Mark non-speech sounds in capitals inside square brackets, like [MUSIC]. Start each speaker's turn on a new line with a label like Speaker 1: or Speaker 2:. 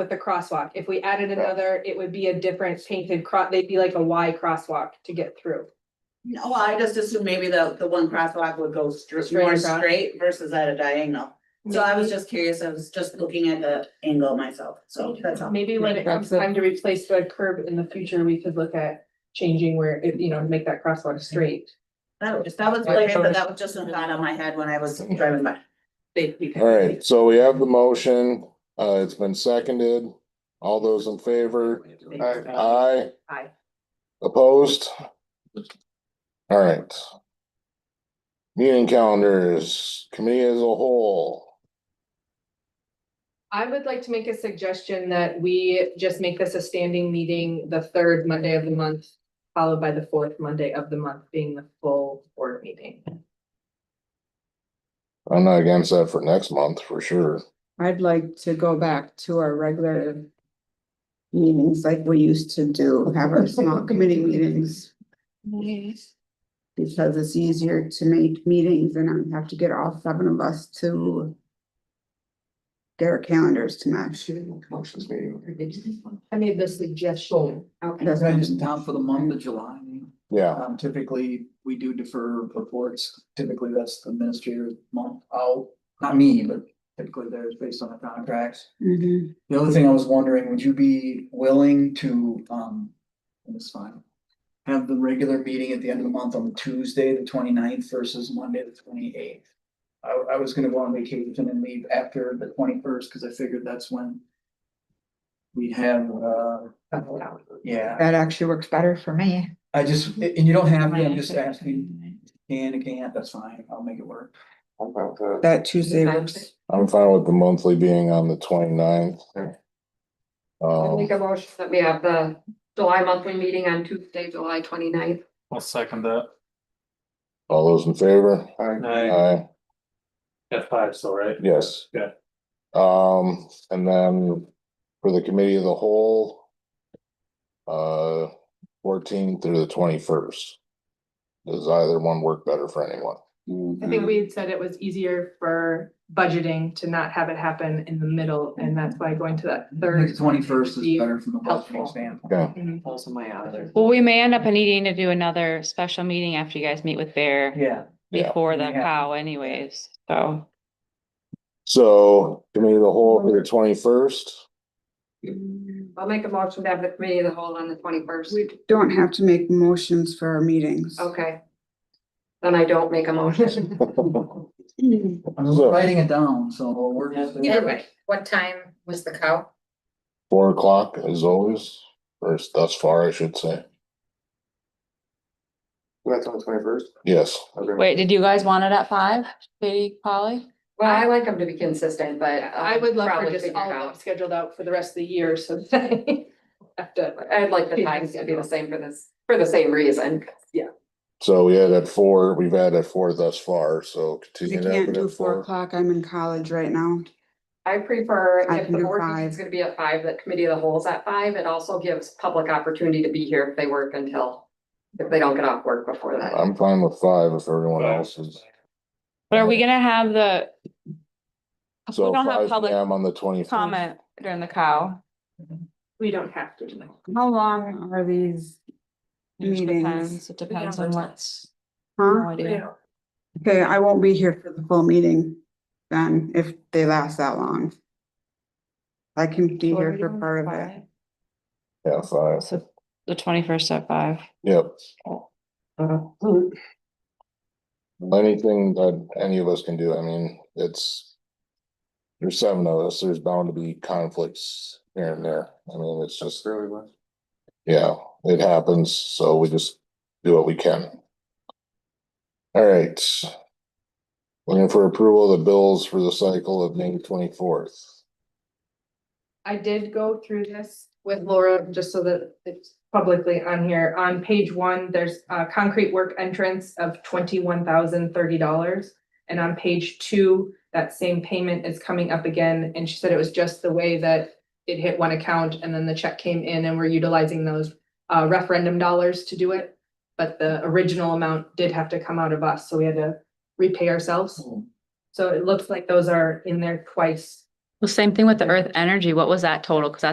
Speaker 1: with the crosswalk. If we added another, it would be a different painted cross, they'd be like a Y crosswalk to get through.
Speaker 2: No, I just assumed maybe the, the one crosswalk would go straight, more
Speaker 1: across?
Speaker 2: straight versus at a diagonal. So I was just curious, I was just looking at the angle myself, so that's all.
Speaker 1: Maybe when it comes time to replace the curb in the future, we could look at changing where, it you know, make that crosswalk straight.
Speaker 2: That was, that was, like, but that was just a thought on my head when I was driving by.
Speaker 3: All right, so we have the motion, uh, it's been seconded. All those in favor? Aye.
Speaker 2: Aye.
Speaker 3: Opposed? All right. Meeting calendars, committee as a whole.
Speaker 1: I would like to make a suggestion that we just make this a standing meeting, the third Monday of the month, followed by the fourth Monday of the month being the full board meeting.
Speaker 3: I'm not against that for next month, for sure.
Speaker 4: I'd like to go back to our regular meetings like we used to do, have
Speaker 1: [LAUGHS]
Speaker 4: our small committee meetings. Because it's easier to make meetings and I don't have to get all seven of us to get our calendars to match.
Speaker 1: I made the suggestion.
Speaker 5: Can I just town for the month of July?
Speaker 3: Yeah,
Speaker 5: Um, typically, we do defer reports. Typically, that's the administrator month out, not me, but typically there's based on the contracts.
Speaker 1: Mm-hmm.
Speaker 4: Mhm.
Speaker 5: The other thing I was wondering, would you be willing to, um, and it's fine. Have the regular meeting at the end of the month on Tuesday, the 29th versus Monday, the twenty eighth. I, I was gonna go on vacation and leave after the twenty first, cause I figured that's when. We have, uh, yeah,
Speaker 6: That actually works better for me.
Speaker 5: I just, and you don't have, to, I'm just asking, can, it can't, that's fine, I'll make it work.
Speaker 6: That Tuesday works.
Speaker 3: I'm fine with the monthly being on the 29th.
Speaker 7: I
Speaker 3: Um,
Speaker 7: make a motion that we have the July monthly meeting on Tuesday, July 29th.
Speaker 8: I'll second that.
Speaker 3: all those in favor?
Speaker 8: Aye.
Speaker 3: Aye.
Speaker 8: F five still, right?
Speaker 3: Yes.
Speaker 8: Yeah.
Speaker 3: Um, and then for the committee of the whole. Uh, fourteen through the twenty-first. Does either one work better for anyone?
Speaker 1: I
Speaker 4: Mm-hmm.
Speaker 1: think we had said it was easier for budgeting to not have it happen in the middle, and that's why going to that
Speaker 5: I think
Speaker 1: third.
Speaker 5: the twenty first
Speaker 1: would be
Speaker 5: is better from a
Speaker 1: helpful.
Speaker 5: budgeting standpoint.
Speaker 3: Okay,
Speaker 1: Mhm.
Speaker 5: Also my other.
Speaker 9: Well, we may end up needing to do another special meeting after you guys meet with Bear
Speaker 5: Yeah.
Speaker 3: Yeah.
Speaker 9: before the
Speaker 5: Yeah.
Speaker 9: cow anyways, so.
Speaker 3: so committee of the whole for the twenty-first, [LAUGHS]
Speaker 7: I'll make a motion to have the committee of the whole on the twenty first.
Speaker 4: We don't have to make motions for our meetings.
Speaker 7: Okay. Then I don't make a motion. [LAUGHS]
Speaker 4: [CLEARS THROAT]
Speaker 5: I'm just
Speaker 3: So-
Speaker 5: writing it down, so we're just.
Speaker 10: Either way, what time was the cow?
Speaker 3: four o'clock as always, or as- thus far, I should say.
Speaker 11: That's on the twenty first.
Speaker 3: Yes,
Speaker 9: Wait, did you guys want it at five, Katie, Polly?
Speaker 7: Well, I like them to be consistent, but. I'll
Speaker 1: I would love for
Speaker 7: probably
Speaker 1: just
Speaker 7: figure it
Speaker 1: all of them
Speaker 7: out.
Speaker 1: scheduled out for the rest of the year, so that [LAUGHS] I have to
Speaker 7: I'd like the times to be the same for this, for the same reason.
Speaker 3: so we had at four, we've had at four thus far, so
Speaker 4: I
Speaker 3: continue.
Speaker 4: can't
Speaker 3: that
Speaker 4: do
Speaker 3: at
Speaker 4: four o'clock. I'm in college right now.
Speaker 7: I prefer
Speaker 4: I
Speaker 7: if
Speaker 4: can
Speaker 7: the
Speaker 4: do
Speaker 7: board
Speaker 4: five.
Speaker 7: is gonna be at five, the committee of the whole is at five. It also gives public opportunity to be here if they work until, if they don't get off work before that.
Speaker 3: I'm fine with five if everyone else is,
Speaker 9: But are we gonna have the? We
Speaker 3: so
Speaker 9: don't
Speaker 3: five
Speaker 9: have
Speaker 3: P
Speaker 9: public
Speaker 3: M on the twenty-first.
Speaker 9: comment during the cow.
Speaker 1: We don't have to. do that.
Speaker 4: How long are these
Speaker 9: It just
Speaker 4: meetings?
Speaker 9: depends, it depends on what's.
Speaker 4: Huh?
Speaker 9: no idea.
Speaker 4: Okay, I won't be here for the full meeting then, if they last that long. I can be here for part of it.
Speaker 3: Yeah, five,
Speaker 9: So the twenty-first at five.
Speaker 3: yep.
Speaker 9: Uh-huh.
Speaker 3: Anything that any of us can do, I mean, it's. There's seven of us, there's bound to be conflicts here and there, I mean, it's just,
Speaker 11: Fairly much.
Speaker 3: yeah, it happens, so we just do what we can. All right. Looking for approval of the bills for the cycle of May twenty-fourth.
Speaker 1: I did go through this with Laura, just so that it's publicly on here. On page one, there's a concrete work entrance of twenty-one thousand thirty dollars. And on page two, that same payment is coming up again, and she said it was just the way that it hit one account and then the check came in and we're utilizing those uh referendum dollars to do it. But the original amount did have to come out of us, so we had to repay ourselves. So it looks like those are in there twice
Speaker 9: Well, same thing with the earth energy. What was that total? Cause that's